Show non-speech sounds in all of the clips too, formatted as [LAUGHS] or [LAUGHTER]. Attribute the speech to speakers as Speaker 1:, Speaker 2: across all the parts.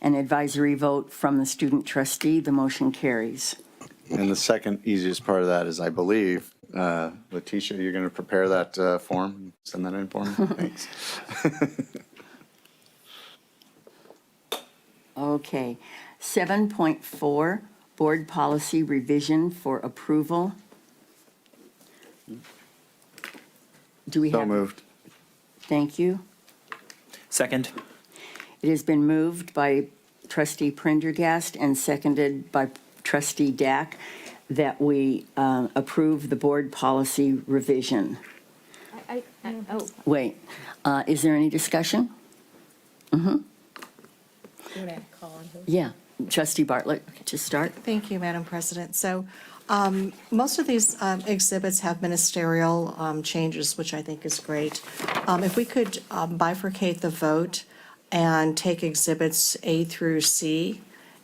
Speaker 1: an advisory vote from the student trustee. The motion carries.
Speaker 2: And the second easiest part of that is, I believe, uh, Letitia, you're going to prepare that uh, form, send that in
Speaker 1: [LAUGHS]
Speaker 2: for me? Thanks.
Speaker 1: Okay. 7.4, Board Policy Revision for Approval. Do we have?
Speaker 2: So moved.
Speaker 1: Thank you.
Speaker 3: Second.
Speaker 1: It has been moved by trustee Prendergast and seconded by trustee Dack that we uh, approve the board policy revision.
Speaker 4: I, I, oh,
Speaker 1: Wait, uh, is there any discussion? Yeah, trustee Bartlett to start.
Speaker 5: Thank you, Madam President. So um, most of these um, exhibits have ministerial um, changes, which I think is great. Um, If we could um, bifurcate the vote and take exhibits A through C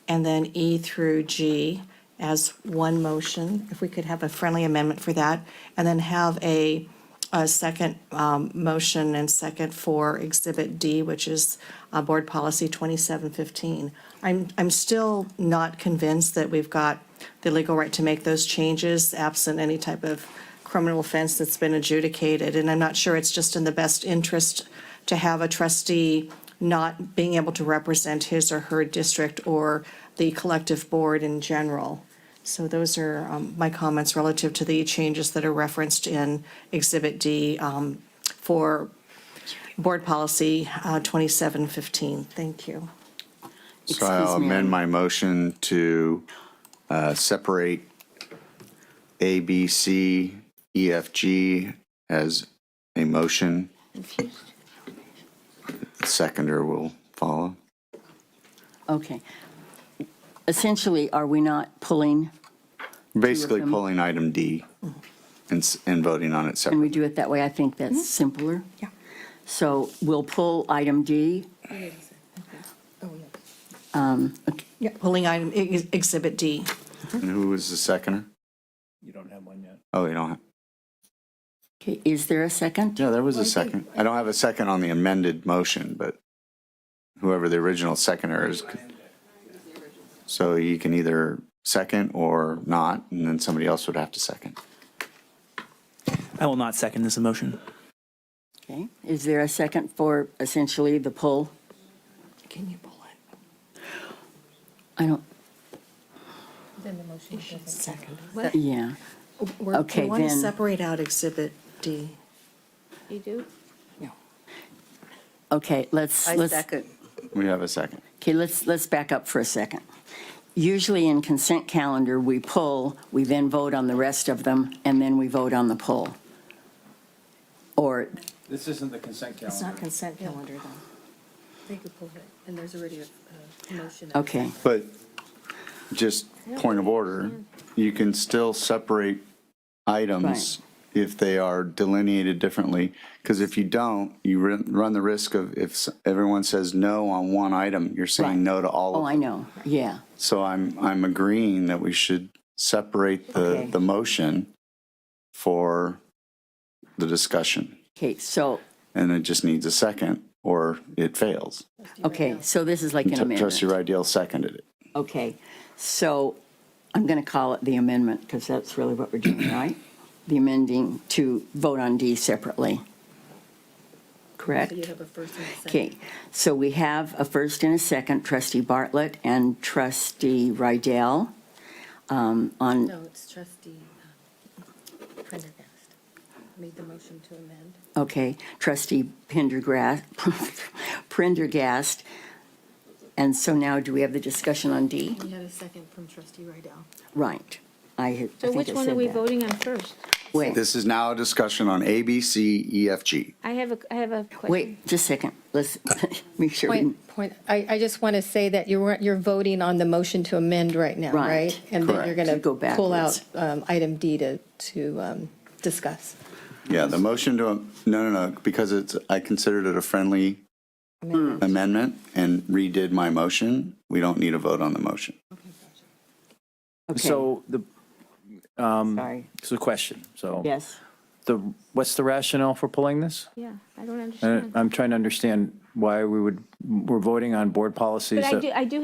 Speaker 5: and then E through G as one motion, if we could have a friendly amendment for that, and then have a a second um, motion and second for Exhibit D, which is uh, Board Policy 2715. I'm, I'm still not convinced that we've got the legal right to make those changes absent any type of criminal offense that's been adjudicated. And I'm not sure it's just in the best interest to have a trustee not being able to represent his or her district or the collective board in general. So those are um, my comments relative to the changes that are referenced in Exhibit D um, for Board Policy uh, 2715. Thank you.
Speaker 2: So I'll
Speaker 1: Excuse me,
Speaker 2: amend
Speaker 1: I'm-
Speaker 2: my motion to uh, separate A, B, C, E, F, G as a motion. Seconder will follow.
Speaker 1: Okay. Essentially, are we not pulling,
Speaker 2: Basically
Speaker 1: them.
Speaker 2: pulling item D and, s- and voting on it
Speaker 1: can
Speaker 2: separately.
Speaker 1: we do it that way? I think
Speaker 6: Mm-hmm.
Speaker 1: that's simpler.
Speaker 5: Yeah.
Speaker 1: So we'll pull item D. Um, okay,
Speaker 5: Pulling item, ex- Exhibit D.
Speaker 2: And who was the seconder? You don't have one yet. Oh, you don't have?
Speaker 1: Okay, is there a second?
Speaker 2: Yeah, there was a second. I don't have a second on the amended motion, but whoever the original seconder is. could- So you can either second or not, and then somebody else would have to second.
Speaker 3: I will not second this motion.
Speaker 1: Okay, is there a second for essentially the pull?
Speaker 5: Can you pull it?
Speaker 1: I don't,
Speaker 5: Second.
Speaker 1: yeah, Okay,
Speaker 5: We want to
Speaker 1: then-
Speaker 5: separate out Exhibit D.
Speaker 4: you do?
Speaker 1: okay, let's,
Speaker 6: I
Speaker 1: let's,
Speaker 6: second.
Speaker 2: We have a second.
Speaker 1: okay, let's, let's back up for a second. Usually in consent calendar, we pull, we then vote on the rest of them, and then we vote on the pull. Or,
Speaker 7: This isn't the consent
Speaker 5: It's not
Speaker 7: calendar.
Speaker 5: consent calendar, though.
Speaker 6: They could pull it, and there's already a motion.
Speaker 1: okay,
Speaker 2: But just point of order, you can still separate items if they are delineated differently. Because if you don't, you run run the risk of if s- everyone says no on one item, you're
Speaker 1: Right.
Speaker 2: saying no to all of them.
Speaker 1: oh, I know, yeah,
Speaker 2: So I'm, I'm agreeing that we should separate the,
Speaker 1: Okay.
Speaker 2: the motion for the discussion.
Speaker 1: okay, so,
Speaker 2: And it just needs a second or it fails.
Speaker 1: okay, so this is like an amendment.
Speaker 2: Trustee Rydell seconded it.
Speaker 1: Okay, so I'm going to call it the amendment because that's really what we're doing, right? The amending to vote on D separately. Correct?
Speaker 6: So you have a first and a second.
Speaker 1: Okay, so we have a first and a second, trustee Bartlett and trustee Rydell um, on,
Speaker 6: No, it's trustee uh, Prendergast made the motion to amend.
Speaker 1: okay, trustee [LAUGHS] Pendergrass, Prendergast. And so now do we have the discussion on D?
Speaker 6: We had a second from trustee Rydell.
Speaker 1: Right. I had- I
Speaker 4: So
Speaker 1: think
Speaker 4: which
Speaker 1: I
Speaker 4: one are
Speaker 1: said
Speaker 4: we
Speaker 1: that.
Speaker 4: voting on first?
Speaker 1: Wait.
Speaker 2: This is now a discussion on A, B, C, E, F, G.
Speaker 4: I have a, I have a question.
Speaker 1: Wait, just a second. Let's [LAUGHS] make sure. we-
Speaker 8: Point, point, I, I just want to say that you're, you're voting on the motion to amend right now,
Speaker 1: Right.
Speaker 8: right? And then
Speaker 2: Correct.
Speaker 8: you're going to
Speaker 1: To go
Speaker 8: pull out
Speaker 1: backwards.
Speaker 8: um, item D to, to um, discuss.
Speaker 2: Yeah, the motion to, no, no, no, because it's, I considered it a friendly
Speaker 1: Hmm.
Speaker 2: amendment and redid my motion. We don't need a vote on the motion.
Speaker 1: Okay,
Speaker 7: So the, um,
Speaker 1: Sorry.
Speaker 7: it's a question, so.
Speaker 1: Yes,
Speaker 7: the, what's the rationale for pulling this?
Speaker 4: Yeah, I don't
Speaker 7: I-
Speaker 4: understand.
Speaker 7: I'm trying to understand why we would, we're voting on board policies
Speaker 4: But I
Speaker 7: that.
Speaker 4: do, I do